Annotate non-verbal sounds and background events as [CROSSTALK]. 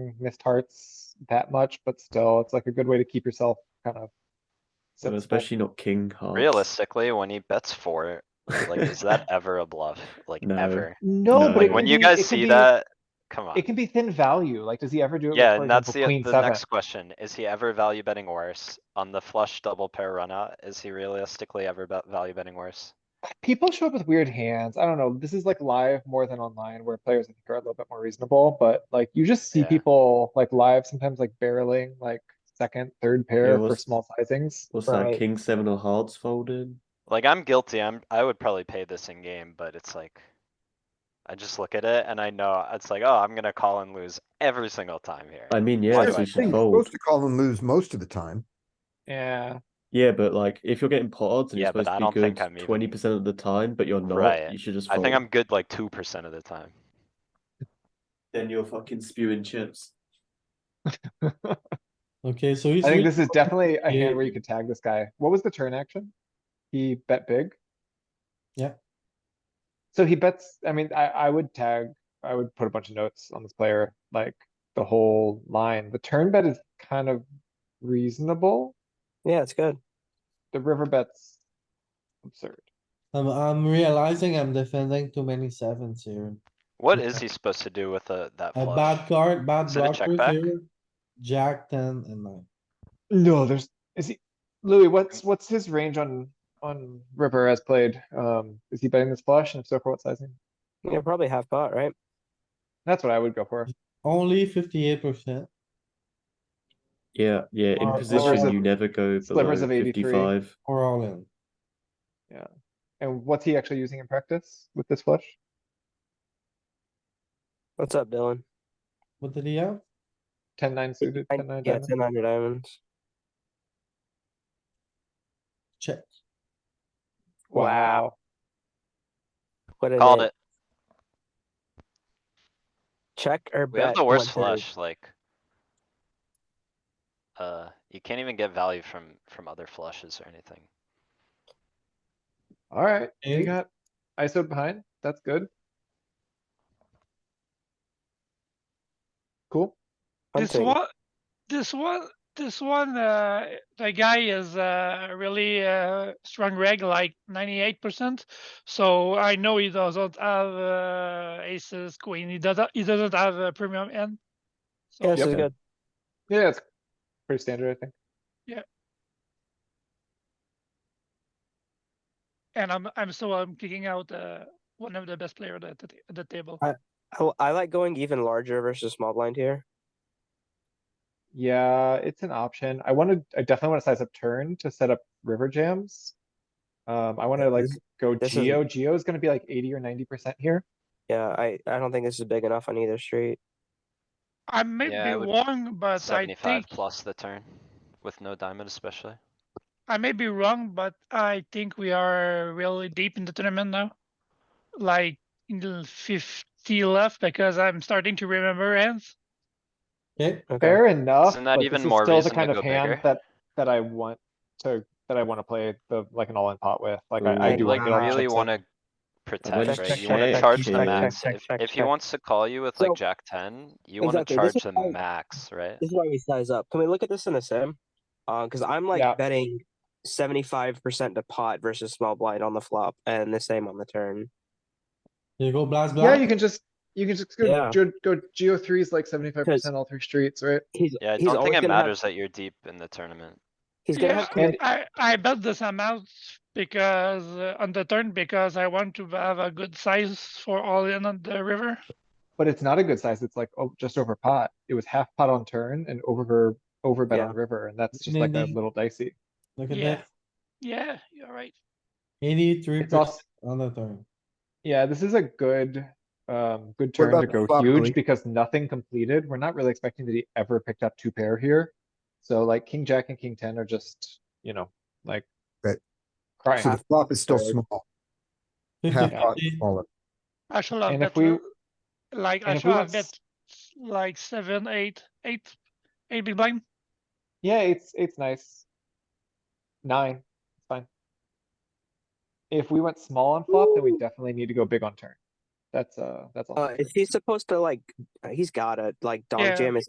getting missed hearts that much, but still, it's like a good way to keep yourself kind of. Well, sensible. especially not king hearts. Realistically, when he bets for it, like, [LAUGHS] is that ever a bluff? Like, No. ever? No, No. but it When can you be- it guys can see be- that, come on. It can be thin value, like, does he ever do it? with, Yeah, for and that's example, the, queen the seven? next question. Is he ever value betting worse? On the flush double pair run out, is he realistically ever bet value betting worse? People show up with weird hands, I don't know, this is like live more than online, where players I think are a little bit more reasonable, but like, you just see Yeah. people like live, sometimes like barreling, like second, third pair for what's- small sizings. [LAUGHS] What's Right. that? King seven of hearts folded. Like, I'm guilty, I'm, I would probably pay this in game, but it's like. I just look at it and I know, it's like, oh, I'm gonna call and lose every single time here. I mean, Why yeah, do so I you should think fold. Supposed to call and lose most of the time. Yeah, Yeah, but like if you're getting pot odds and Yeah, you're but I supposed don't to be think I'm good even- twenty percent of the time, but you're not, Right. you should just. I Fold. think I'm good like two percent of the time. Then you're fucking spewing chips. Okay, so he's. I think really- this is definitely a Yeah. hand where you could tag this guy. What was the turn action? He bet big? Yeah. So he bets, I mean, I, I would tag, I would put a bunch of notes on this player, like the whole line. The turn bet is kind of reasonable. Yeah, it's good. The river bet's absurd. I'm, I'm realizing I'm defending too many sevens here. What is he supposed to do with the, that A flush? bad card, bad Is it a check blocker back? here. Jack ten and nine. No, there's, is he, Louis, what's, what's his range on, on river as played? Um, is he betting this flush and if so, for what sizing? Yeah, probably half pot, right? That's what I would go for. Only fifty-eight percent. Yeah, yeah. In Or- or is position, it you never go below Uh, slivers of 83? fifty-five. Or all in. And what's he actually using in practice with this flush? What's up, Dylan? What did he have? Ten nine suited, I- ten nine yeah, diamond. ten hundred diamonds. Check. Wow, What is Called it. Check or We bet? have the worst 130? flush, like. Uh, you can't even get value from, from other flushes or anything. alright, Okay. you got ISO behind, that's good. Cool, This Hunting. one, this one, this one, uh, the guy is, uh, really, uh, strong reg, like ninety-eight percent. So I know he doesn't have, uh, aces, queen, he doesn't, he doesn't have a premium end. Yeah, this Yep. is good. yeah, it's pretty standard, I think. And I'm, I'm so I'm kicking out, uh, one of the best player at the, at the table. I, li- I like going even larger versus small blind here. Yeah, it's an option. I wanted, I definitely wanna size up turn to set up river jams. Um, I wanna like This- go this is- geo, geo is gonna be like eighty or ninety percent here. Yeah, I, I don't think this is big enough on either street. I may Yeah, I be would- wrong, but I Seventy-five think, plus the turn, with no diamond especially. I may be wrong, but I think we are really deep in the tournament now. Like in the fifty left because I'm starting to remember ends. Okay, Okay. Fair enough, Isn't that but even this is more still the reason to kind of go hand bigger? that, that I want to, that I wanna play the, like an all-in pot with, like I, I Ooh. do. You like wanna get all the really chips in. wanna Check, protect, right? check, You wanna check, charge check, the check, max. check, If, check, if he check. wants to call you with like So- jack ten, you wanna Exactly, this charge is the why- max, right? This is why we size up. Can we look at this in the sim? Uh, because I'm like Yeah. betting seventy-five percent to pot versus small blind on the flop, and the same on the turn. you go blast, Yeah, you blast. can just, you can just Yeah. go, go, go Geo three is like seventy-five percent all three streets, right? He's Yeah, I he's don't always think it gonna have- matters that you're deep in the tournament. he's gonna have And- I, I bet this amount because uh, on the turn because I want to have a good size for all in on the river. But it's not a good size. It's like, oh, just over pot. It was half pot on turn and over, over bet Yeah. on river, and that's just like a Maybe. little dicey. Look at Yeah. that. Yeah, you're right. Eighty-three It's also, percent on the turn. yeah, this is a good, um, good turn about to the go flop, Louis? huge because nothing completed. We're not really expecting that he ever picked up two pair here. So like king, jack and king ten are just, you know, like. Right. Crying. So the flop is still Third. small, half pot Fifty-fifty. smaller. I shall have And if bet, we- l- like I and if we shall want have bet like seven, eight, eight, eight big blind. Yeah, it's, it's nice. Nine, it's fine. If we went small on flop, then we definitely need to go big on turn. That's, uh, that's all. Uh, is he supposed to like? uh, He's gotta like dog Yeah. jam his